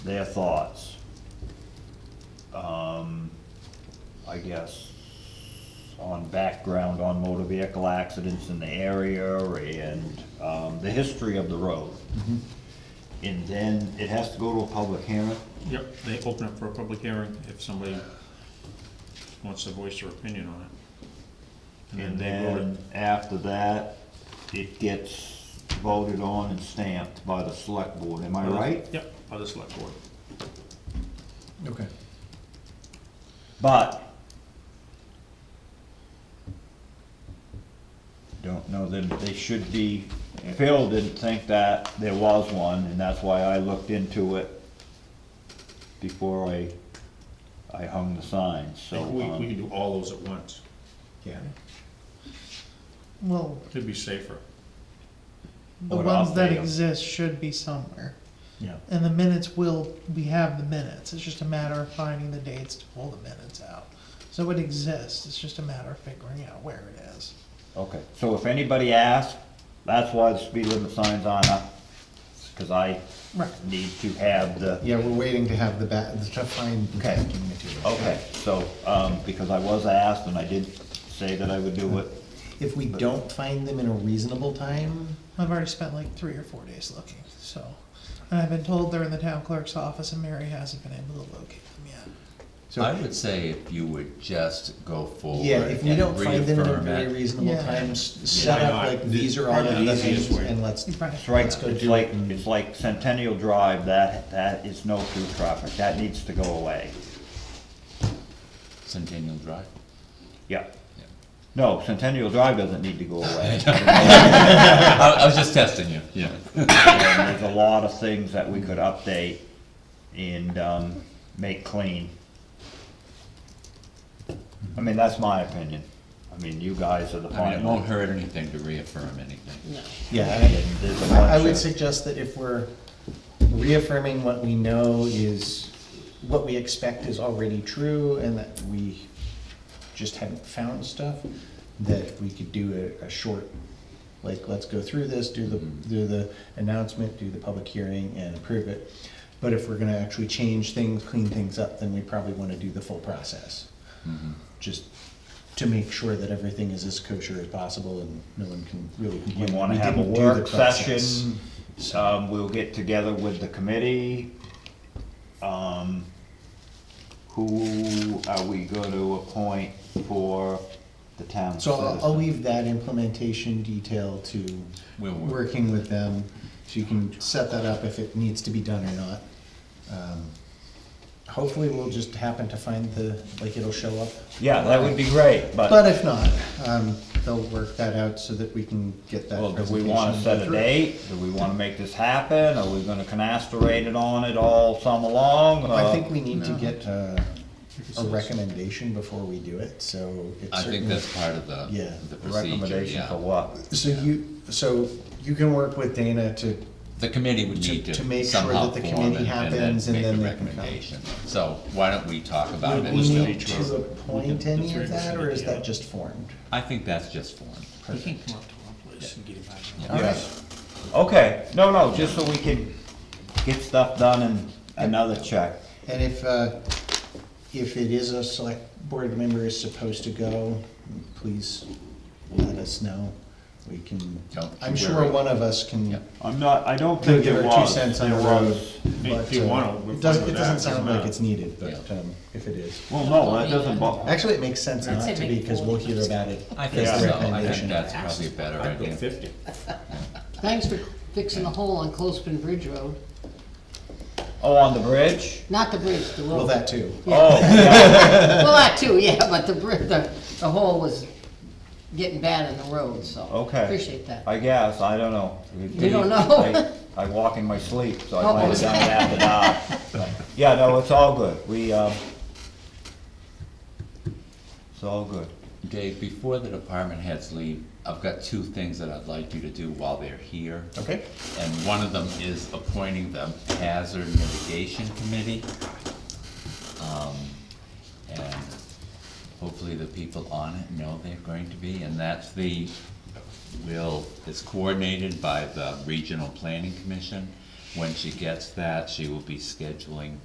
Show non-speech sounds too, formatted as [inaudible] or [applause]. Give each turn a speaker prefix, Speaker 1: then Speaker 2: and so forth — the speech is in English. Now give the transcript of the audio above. Speaker 1: their thoughts. Um, I guess, on background on motor vehicle accidents in the area and, um, the history of the road.
Speaker 2: Mm-hmm.
Speaker 1: And then it has to go to a public hearing,
Speaker 2: Yep, they open up for a public hearing if somebody wants to voice their opinion on it.
Speaker 1: and
Speaker 2: they vote
Speaker 1: then
Speaker 2: it.
Speaker 1: after that, it gets voted on and stamped by the select board, am I right?
Speaker 2: Yep, by the select board.
Speaker 3: Okay.
Speaker 1: But don't know that they should be, Phil didn't think that there was one, and that's why I looked into it before I, I hung the signs,
Speaker 2: We,
Speaker 1: so.
Speaker 2: we
Speaker 1: um,
Speaker 2: can do all those at once.
Speaker 3: Yeah.
Speaker 4: Well,
Speaker 2: It'd be safer.
Speaker 4: the
Speaker 1: Or
Speaker 4: ones that
Speaker 1: update 'em.
Speaker 4: exist should be somewhere.
Speaker 1: Yeah.
Speaker 4: And the minutes will, we have the minutes, it's just a matter of finding the dates to pull the minutes out. So it exists, it's just a matter of figuring out where it is.
Speaker 1: Okay, so if anybody asks, that's why the speed limit signs on up, because I
Speaker 4: Right.
Speaker 1: need to have the,
Speaker 3: Yeah, we're waiting to have the ba, to find the
Speaker 1: Okay.
Speaker 3: testing material.
Speaker 1: okay, so, um, because I was asked and I did say that I would do it,
Speaker 3: If we don't find them in a reasonable time,
Speaker 4: I've already spent like three or four days looking, so. And I've been told they're in the town clerk's office and Mary hasn't been able to locate them yet.
Speaker 5: I
Speaker 3: so,
Speaker 5: would say if you would just go forward
Speaker 3: yeah, if we don't
Speaker 5: and
Speaker 3: find them in a
Speaker 5: reaffirm
Speaker 3: very
Speaker 5: it.
Speaker 3: reasonable
Speaker 4: Yeah.
Speaker 3: time, s- set up
Speaker 2: not?
Speaker 3: like, these are all
Speaker 2: Yeah,
Speaker 3: the
Speaker 2: that's the
Speaker 3: things,
Speaker 2: easiest way.
Speaker 3: and let's,
Speaker 4: Right.
Speaker 1: That's right,
Speaker 3: Let's go
Speaker 1: it's
Speaker 3: do
Speaker 1: like,
Speaker 3: it and-
Speaker 1: it's like Centennial Drive, that, that is no through traffic, that needs to go away.
Speaker 5: Centennial Drive.
Speaker 1: Yeah,
Speaker 5: Yeah.
Speaker 1: no, Centennial Drive doesn't need to go
Speaker 5: [laughs]
Speaker 1: away.
Speaker 5: I, I was just testing you, yeah.
Speaker 1: And There's a lot of things that we could update and, um, make clean. I mean, that's my opinion. I mean, you guys are the
Speaker 5: I mean, it
Speaker 1: final.
Speaker 5: won't hurt anything to reaffirm anything.
Speaker 3: yeah.
Speaker 1: And there's a
Speaker 3: I- I
Speaker 1: bunch
Speaker 3: would
Speaker 1: of-
Speaker 3: suggest that if we're reaffirming what we know is, what we expect is already true, and that we just haven't found stuff, that we could do a, a short, like, let's go through this, do the,
Speaker 1: Mm-hmm.
Speaker 3: do the announcement, do the public hearing, and approve it. But if we're gonna actually change things, clean things up, then we probably wanna do the full process.
Speaker 1: Mm-hmm.
Speaker 3: Just to make sure that everything is as kosher as possible and no one can really
Speaker 1: We
Speaker 3: complain.
Speaker 1: wanna
Speaker 3: We
Speaker 1: have a
Speaker 3: didn't do the
Speaker 1: work
Speaker 3: process.
Speaker 1: session, um, we'll get together with the committee. Um, who are we gonna appoint for the town
Speaker 3: So I'll, I'll
Speaker 1: citizen?
Speaker 3: leave that implementation detail to
Speaker 5: We'll work.
Speaker 3: working with them, so you can set that up if it needs to be done or not. Um, Hopefully, we'll just happen to find the, like, it'll show up.
Speaker 1: Yeah, that would be great,
Speaker 3: But
Speaker 1: but,
Speaker 3: if not, um, they'll work that out so that we can get that
Speaker 1: well, do
Speaker 3: presentation.
Speaker 1: we wanna set a
Speaker 3: through.
Speaker 1: date? Do we wanna make this happen? Are we gonna canasterate it on it all summer long?
Speaker 3: I
Speaker 1: Uh,
Speaker 3: think we need to get uh, a
Speaker 2: so.
Speaker 3: recommendation before we do it, so it's
Speaker 5: I think
Speaker 3: certainly.
Speaker 5: that's part of the,
Speaker 3: Yeah,
Speaker 5: the procedure,
Speaker 1: Recommendation for
Speaker 5: yeah.
Speaker 1: what?
Speaker 3: So you, so you can work with Dana to
Speaker 5: The committee would
Speaker 3: To-
Speaker 5: need to
Speaker 3: to make sure
Speaker 5: somehow
Speaker 3: that the
Speaker 5: form
Speaker 3: committee
Speaker 5: and- and
Speaker 3: happens and
Speaker 5: make
Speaker 3: then
Speaker 5: a
Speaker 3: they can come.
Speaker 5: recommendation. So why don't we talk about
Speaker 3: Would
Speaker 5: it?
Speaker 3: we
Speaker 2: Listed
Speaker 3: need
Speaker 2: each
Speaker 3: to
Speaker 2: other.
Speaker 3: appoint
Speaker 2: The
Speaker 3: any
Speaker 2: three
Speaker 3: of
Speaker 2: of us
Speaker 3: that,
Speaker 2: would
Speaker 3: or is
Speaker 2: be
Speaker 3: that
Speaker 2: out.
Speaker 3: just formed?
Speaker 5: I think that's just form.
Speaker 2: You can come up to our place and get it back.
Speaker 3: All right.
Speaker 1: Okay, no, no, just so we can get stuff done and another check.
Speaker 3: And if, uh, if it is a select board member is supposed to go, please let us know. We can,
Speaker 5: Don't
Speaker 3: I'm
Speaker 5: you
Speaker 3: sure
Speaker 5: worry.
Speaker 3: one of us can
Speaker 5: Yeah.
Speaker 1: I'm not, I don't
Speaker 3: can
Speaker 1: think
Speaker 3: give
Speaker 1: it
Speaker 3: our two
Speaker 1: was.
Speaker 3: cents on the
Speaker 1: There
Speaker 3: road.
Speaker 1: was-
Speaker 3: but,
Speaker 2: If you
Speaker 3: uh,
Speaker 2: wanna, we're
Speaker 3: It doesn't,
Speaker 2: fine with
Speaker 3: it doesn't
Speaker 2: that,
Speaker 3: sound
Speaker 2: doesn't
Speaker 3: like
Speaker 2: matter.
Speaker 3: it's needed, but,
Speaker 5: Yeah.
Speaker 3: um, if it is.
Speaker 1: Well, no, that doesn't bother,
Speaker 3: Actually, it makes sense not to be, because we'll hear about it.
Speaker 5: I think
Speaker 3: as a
Speaker 5: so, I
Speaker 3: recommendation.
Speaker 5: think that's probably a better
Speaker 2: I'd go
Speaker 5: idea.
Speaker 2: fifty.
Speaker 6: Thanks for fixing the hole on Closepin Bridge Road,
Speaker 1: oh, on the bridge?
Speaker 6: not the bridge, the road.
Speaker 3: Well, that too.
Speaker 1: Oh, yeah,
Speaker 6: Well, that too, yeah, but the bri, the, the hole was getting bad in the road, so.
Speaker 1: okay.
Speaker 6: Appreciate that.
Speaker 1: I guess, I don't know.
Speaker 6: You don't know?
Speaker 1: I I walk in my sleep, so
Speaker 6: Oh,
Speaker 1: I might have
Speaker 6: okay.
Speaker 1: done it after dark. Yeah, no, it's all good, we, um, it's all good.
Speaker 5: Dave, before the department heads leave, I've got two things that I'd like you to do while they're here.
Speaker 3: Okay.
Speaker 5: And one of them is appointing the Hazard Mitigation Committee. Um, And hopefully the people on it know they're going to be, and that's the, will, it's coordinated by the Regional Planning Commission. When she gets that, she will be scheduling